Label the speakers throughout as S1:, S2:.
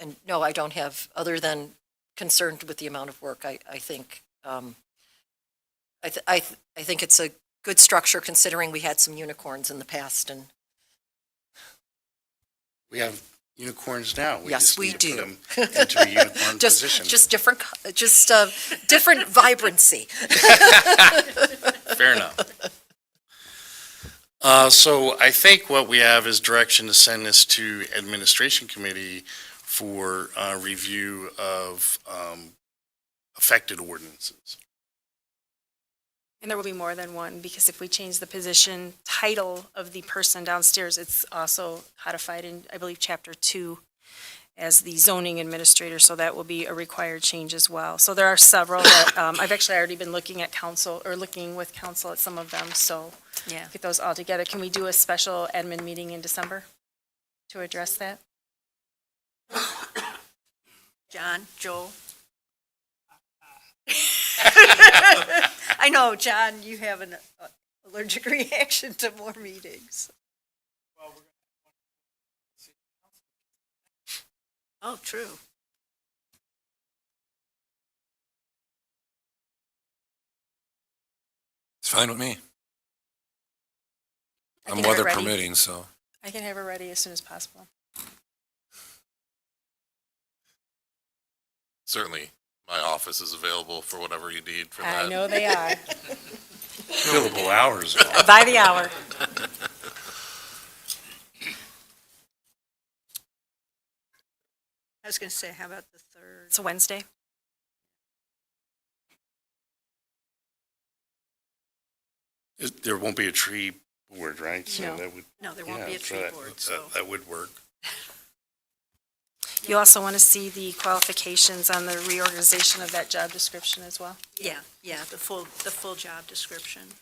S1: And no, I don't have, other than concerned with the amount of work, I, I think, um, I, th- I, th- I think it's a good structure considering we had some unicorns in the past and
S2: We have unicorns now.
S1: Yes,
S2: just
S1: we
S2: need to put
S1: do.
S2: 'em Into a unicorn
S1: just,
S2: position.
S1: just different, co- just, uh, different vibrancy.
S2: Fair enough. Uh, so I think what we have is direction to send this to administration committee for, uh, review of, um, affected ordinances.
S3: And there will be more than one, because if we change the position title of the person downstairs, it's also codified in, I believe, chapter two as the zoning administrator, so that will be a required change as well. So there are several that, um, I've actually already been looking at council, or looking with council at some of them, so.
S4: Yeah.
S3: Get those all together. Can we do a special admin meeting in December to address that?
S4: John, Joel? I know, John, you have an uh, allergic reaction to more meetings. Oh, true.
S5: It's fine with me.
S3: I
S5: I'm
S3: think we're
S5: weather
S3: ready.
S5: permitting, so.
S3: I can have it ready as soon as possible.
S6: certainly my office is available for whatever you need for that.
S3: I know they are.
S2: Billable hours.
S4: By the hour. I was going to say, how about the third?
S3: It's a Wednesday.
S2: It- There won't be a tree board, right? So
S3: No.
S2: that would.
S4: No, there won't be
S2: yeah,
S4: a
S2: so
S4: tree
S2: that-
S4: board,
S2: that-
S4: so.
S2: That would work.
S3: You also want to see the qualifications on the reorganization of that job description as well?
S4: Yeah, yeah, the full, the full job description.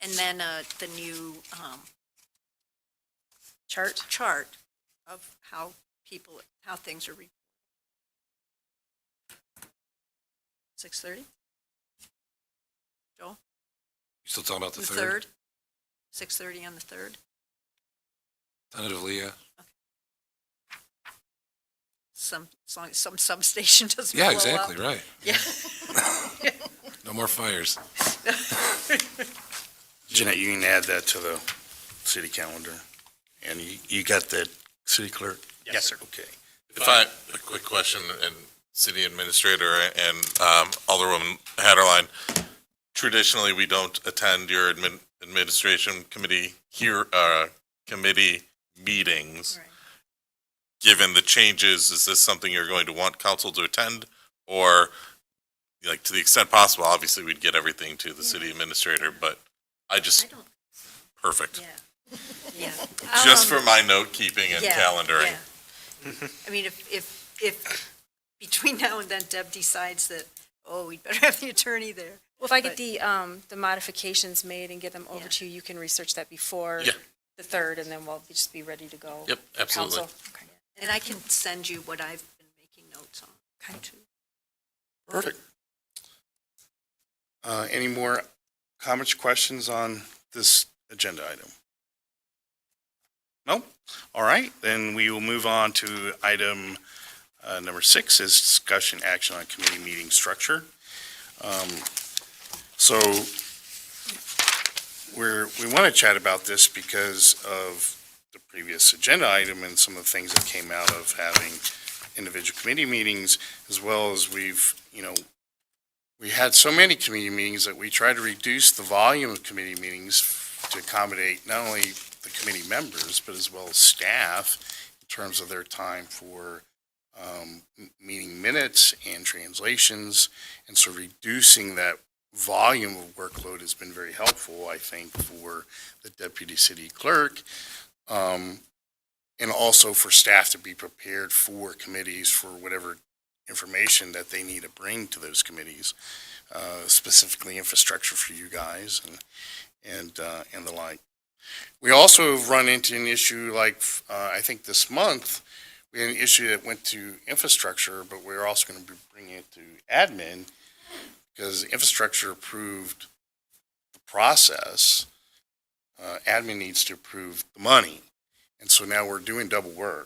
S4: And then uh, the new um,
S3: Chart?
S4: chart of how people, how things are reported. 6:30? Joel?
S5: You still talking about the
S4: The
S5: third?
S4: 3rd? 6:30 on the 3rd?
S5: Tentatively, yeah.
S4: Some, as long as some substation doesn't blow
S5: Yeah,
S4: up.
S5: exactly, right.
S4: Yeah.
S5: No more fires.
S2: Jeanette, you can add that to the city calendar. And you, you got that, city clerk? Yes, sir. Okay.
S6: If I, a quick question, and city administrator and um, Alderwoman Hatterline, traditionally, we don't attend your admin, administration committee here, uh, committee meetings.
S4: Right.
S6: Given the changes, is this something you're going to want council to attend? Or, like, to the extent possible, obviously, we'd get everything to the city administrator, but I
S4: I
S6: just,
S4: don't,
S6: perfect.
S4: yeah, yeah.
S6: Just
S4: Um,
S6: for my note keeping and
S4: Yeah,
S6: calendaring.
S4: yeah. I mean, if, if, if between now and then Deb decides that, oh, we'd better have the attorney there.
S3: Well, if I get the, um, the modifications made and get them over
S4: Yeah.
S3: to you, you can research that before
S6: Yeah.
S3: the third, and then we'll just be ready to go.
S6: Yep, absolutely.
S3: Council. Okay.
S4: And I can send you what I've been making notes on.
S2: Perfect. Uh, Any more comments, questions on this agenda item? No? All right, then we will move on to item uh, number six is discussion action on committee meeting structure. Um, So we're, we want to chat about this because of the previous agenda item and some of the things that came out of having individual committee meetings as well as we've, you know, we had so many committee meetings that we tried to reduce the volume of committee meetings to accommodate not only the committee members, but as well as staff in terms of their time for um, m- meeting minutes and translations. And so reducing that volume of workload has been very helpful, I think, for the deputy city clerk. um, And also for staff to be prepared for committees for whatever information that they need to bring to those committees, uh, specifically infrastructure for you guys and, and, uh, and the like. We also have run into an issue like, uh, I think this month, we had an issue that went to infrastructure, but we're also going to be bringing it to admin because infrastructure approved the process. Uh, admin needs to approve the money. And so now we're doing double work.